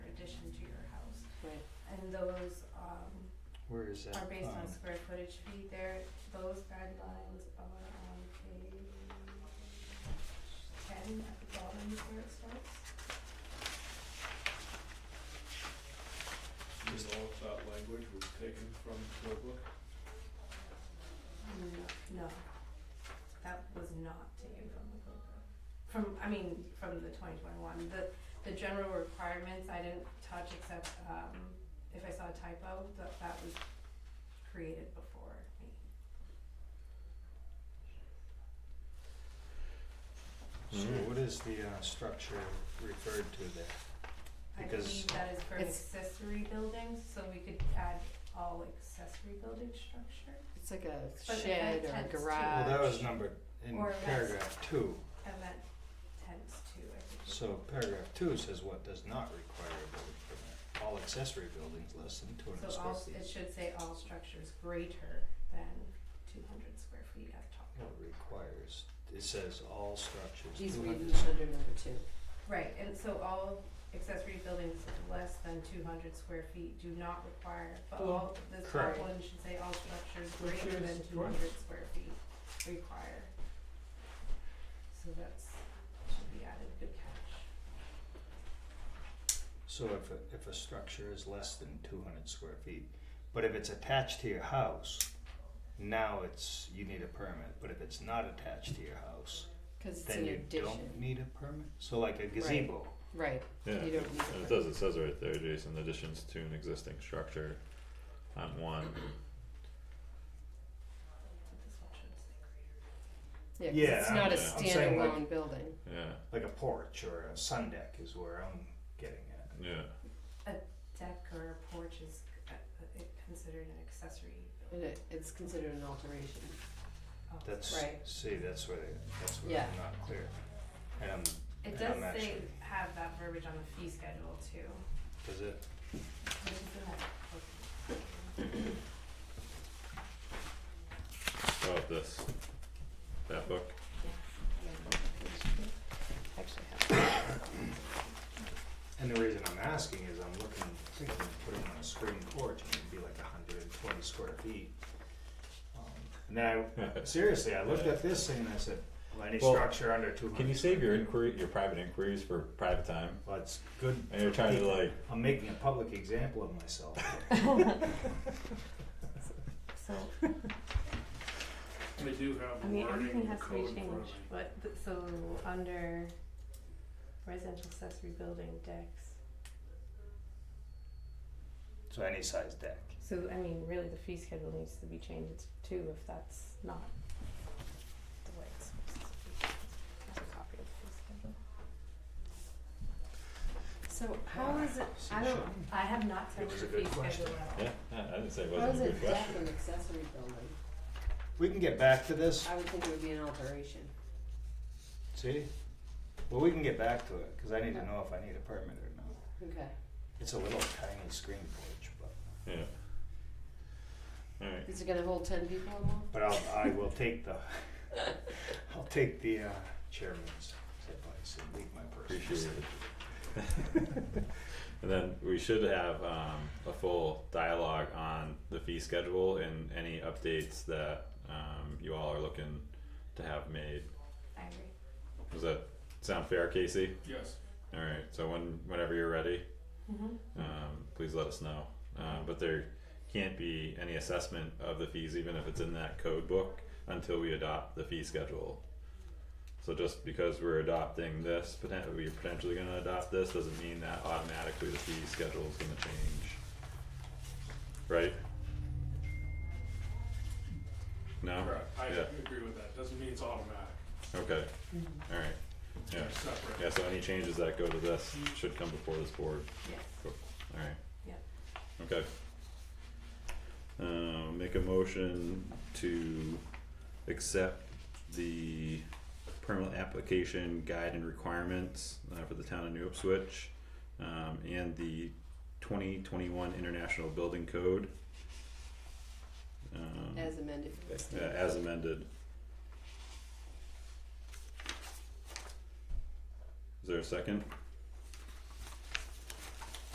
and those, um, Where is that? are based on Um, square footage feet there, those guidelines are on page ten at the bottom is where it starts. Is all of that language was taken from the book? No, No, that was not taken from the code book. From, I mean, from the twenty twenty-one, the, the general requirements I didn't touch except, um, if I saw a typo, that, that was created before me. Oh. So what is the uh structure referred to there? I Because- believe that is for an It's- accessory buildings, so we could add all accessory building structure. It's like a But it shed or a tends to- garage. Well, that was numbered in Or less. paragraph two, And that tends to, I think. is- so paragraph two says what does not require a building permit. All accessory buildings less than two So hundred square all, it feet should say all structures greater than two hundred square feet at top. What requires, it says all structures He's two reading hundred under number two. Right, and so all accessory buildings less than two hundred square feet do not require, but Well, all, the top correct. one should say all structures Which greater is than two what? hundred square feet require. So that's, should be added, good catch. So if a, if a structure is less than two hundred square feet, but if it's attached to your house, now it's, you need a permit, but if it's not attached to your house, Cause it's then an you don't addition, need a permit, so like a gazebo. right, Yeah, You don't need a and permit. it does, it says right there, Jason, additions to an existing structure on one, But this one should say greater. yeah, 'cause Yeah, it's not a I'm- I'm saying, like- standalone building, yeah, Like a porch or a sun deck is where I'm getting at. yeah, Deck or porch is uh, uh, considered an accessory and building. it, it's considered an alteration, Oh, That's, Right. see, that's where, they- that's where Yeah. I'm not clear. Um, And I'm, It and does I'm say, actually- have that verbiage on the fee schedule too, does it, which is in that. oh, this, that book, actually. and the reason I'm asking is I'm looking, thinking of putting on a screen porch and it'd be like hundred and twenty square feet. Um, And then I, seriously, I looked at this thing and I said, well, any Well, structure under two hundred. can you save your inquiry, your private inquiries for private time? Well, it's good, And you're trying to like, I'm making a public example of myself. So, They do have I mean, everything wording has to be code in front of changed, me. but, th- so, under residential accessory building decks, So any size deck. so, I mean, really, the fee schedule needs to be changed too, if that's not the way it's supposed to be. I have a copy of the fee schedule. So how is it, I don't, I have not It touched was the a good fee schedule question. at all. yeah, I I didn't say it how wasn't is a good it deck question. an accessory building? We can get back to this, I would think it would be an alteration, see? Well, we can get back to it, cause I need to know if I need a permit or not. okay, It's a little tiny screen porch, but, Yeah. Alright, is it gonna hold ten people or more? but I'll, I will take the, I'll take the, uh, chairman's advice and leave my personal. appreciate side. it. And then we should have um a full dialogue on the fee schedule and any updates that um you all are looking to have made. I agree. Does that sound fair, Casey? Yes. Alright, so when whenever you're ready, Mm-hmm. um please let us know. Uh but there can't be any assessment of the fees, even if it's in that code book, until we adopt the fee schedule. So just because we're adopting this, poten- we're potentially gonna adopt this, doesn't mean that automatically the fee schedule is gonna change. Right? No? Correct, I Oh, Yeah, agree with that, doesn't mean it's automatic, okay, alright, yeah, they're separate. yeah, so any changes that go to this should come before this board. Yes. Alright. Yeah. Okay. Um, make a motion to accept the permit application guide and requirements uh for the town of New Ipswich. Um, and the twenty twenty-one International Building Code. Um, As amended. yeah, as amended. Is there a second?